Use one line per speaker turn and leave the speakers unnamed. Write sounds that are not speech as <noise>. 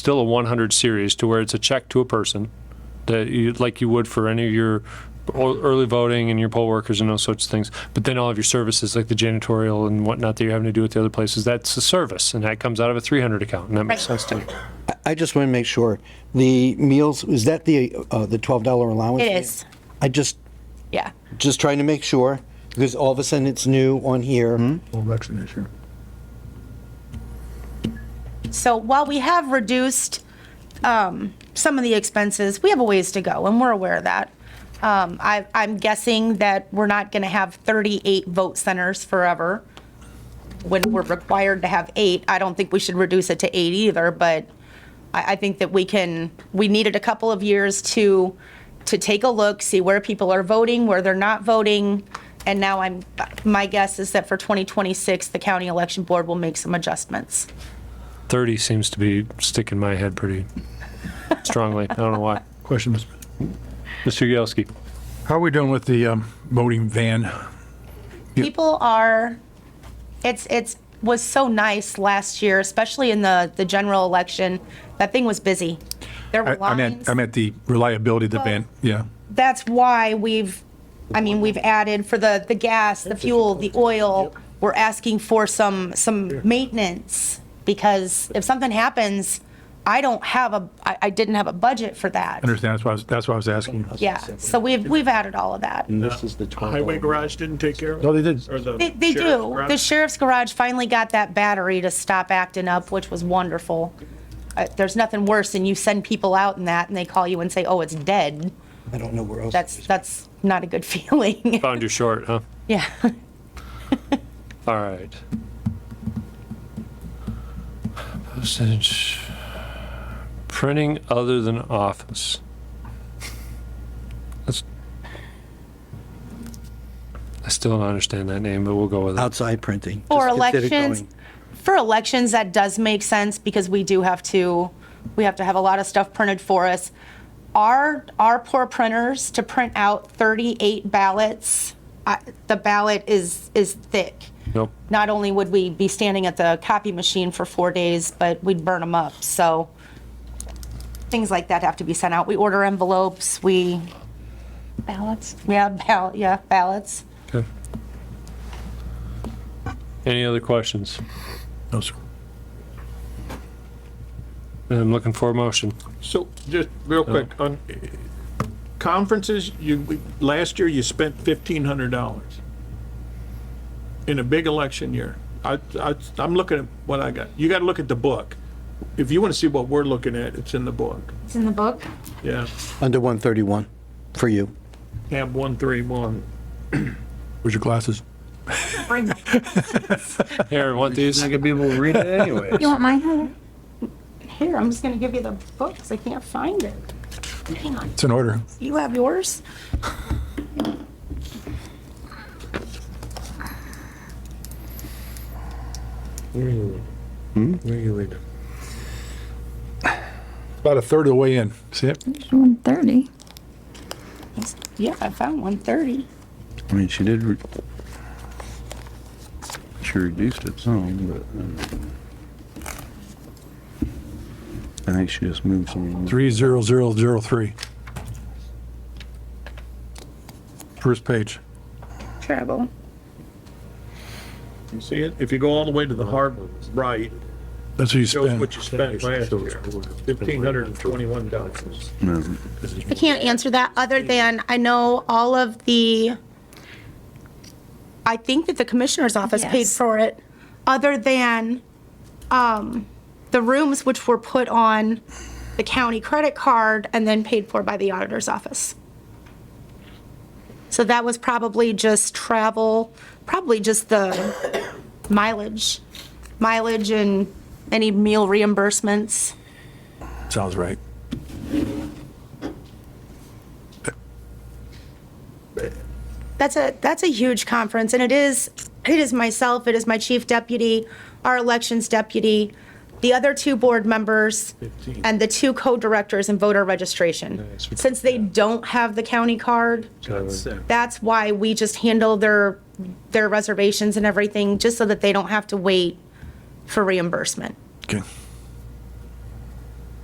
still a 100 series to where it's a check to a person that you, like you would for any of your o- early voting and your poll workers and those sorts of things. But then all of your services, like the janitorial and whatnot that you're having to do with the other places, that's a service and that comes out of a 300 account. And that makes sense to me.
I just want to make sure, the meals, is that the, uh, the $12 allowance?
It is.
I just,
Yeah.
just trying to make sure, because all of a sudden it's new on here.
Well, that's an issue.
So while we have reduced um, some of the expenses, we have a ways to go, and we're aware of that. Um, I, I'm guessing that we're not going to have 38 vote centers forever. When we're required to have eight, I don't think we should reduce it to eight either, but I, I think that we can, we needed a couple of years to, to take a look, see where people are voting, where they're not voting. And now I'm, my guess is that for 2026, the county election board will make some adjustments.
30 seems to be sticking my head pretty strongly. I don't know why.
Question, Mr. President.
Mr. Yagowski.
How are we doing with the um, voting van?
people are it's it's was so nice last year especially in the the general election that thing was busy there were
I- I
lines
meant, I meant the reliability of the van, yeah.
that's why we've i mean we've added for the the gas the fuel the oil we're asking for some some maintenance because if something happens i don't have a i, I didn't have a budget for that
Understand, that's why, I was- that's why I was asking.
yeah so we've we've added all of that
This is the Highway garage didn't take care of it?
No, they did.
Or the
They, they
sheriff's
do.
garage?
The sheriff's garage finally got that battery to stop acting up, which was wonderful. Uh, there's nothing worse than you send people out in that and they call you and say, oh, it's dead.
I don't know where else.
That's, that's not a good <laughs> feeling.
Found you short, huh?
Yeah.
All right. Postage. Printing other than office. That's. I still don't understand that name, but we'll go with it.
Outside printing.
For
Just consider
elections,
going.
for elections, that does make sense because we do have to, we have to have a lot of stuff printed for us. Our, our poor printers to print out 38 ballots, I- the ballot is, is thick.
Nope.
not only would we be standing at the copy machine for four days, but we'd burn them up. So things like that have to be sent out. We order envelopes, we. Ballots? Yeah, ball, yeah, ballots.
Okay. Any other questions?
No, sir.
I'm looking for a motion.
So, just real quick, on uh, conferences, you, we- last year you spent fifteen hundred dollars in a big election year. I, I, I'm looking at what I got. You gotta look at the book. If you wanna see what we're looking at, it's in the book.
It's in the book.
Yeah,
Under 131, for you.
tab one three one.
Where's your glasses?
Here, want these?
gonna be able to read it anyway.
You want mine, Heather?
Here, I'm just gonna give you the book because I can't find it. Hang on,
It's in order.
you have yours?
About a third of the way in. See it?
One thirty.
Yeah, I found 130.
I mean, she did, re- she reduced it some, but. um, I think she just moved some.
30003. First page.
Travel.
You see it? If you go all the way to the hard right,
That's what you
shows
spent.
what you spent last year, fifteen hundred and twenty-one dollars.
No.
I can't answer that, other than I know all of the, I think that the commissioner's office paid
Yes.
for it, other than um, the rooms which were put on the county credit card and then paid for by the auditor's office. So that was probably just travel, probably just the mileage, mileage and any meal reimbursements.
Sounds right.
that's a that's a huge conference and it is it is myself it is my chief deputy our elections deputy the other two board members and the two co-directors in voter registration since they don't have the county card that's why we just handle their their reservations and everything just so that they don't have to wait for reimbursement
Okay.